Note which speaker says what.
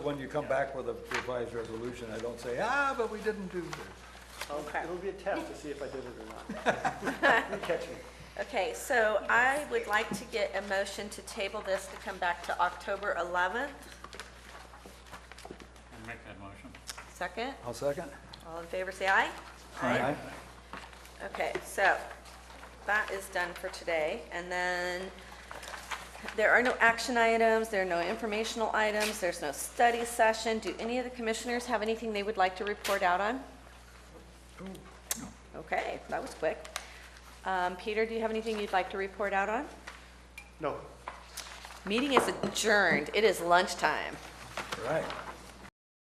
Speaker 1: When you come back with a revised resolution, I don't say, ah, but we didn't do this.
Speaker 2: I'll-
Speaker 3: Okay.
Speaker 2: It'll be a test to see if I did it or not. You catch me.
Speaker 3: Okay, so I would like to get a motion to table this to come back to October 11th.
Speaker 4: I'll Make that motion.
Speaker 3: Second,
Speaker 1: I'll second.
Speaker 3: all in favor, say aye.
Speaker 1: Aye.
Speaker 3: Okay, so that is done for today. And then there are no action items, there are no informational items, there's no study session. Do any of the commissioners have anything they would like to report out on? Okay, that was quick. Um, Peter, do you have anything you'd like to report out on?
Speaker 2: No,
Speaker 3: Meeting is adjourned. It is lunchtime.
Speaker 1: Right.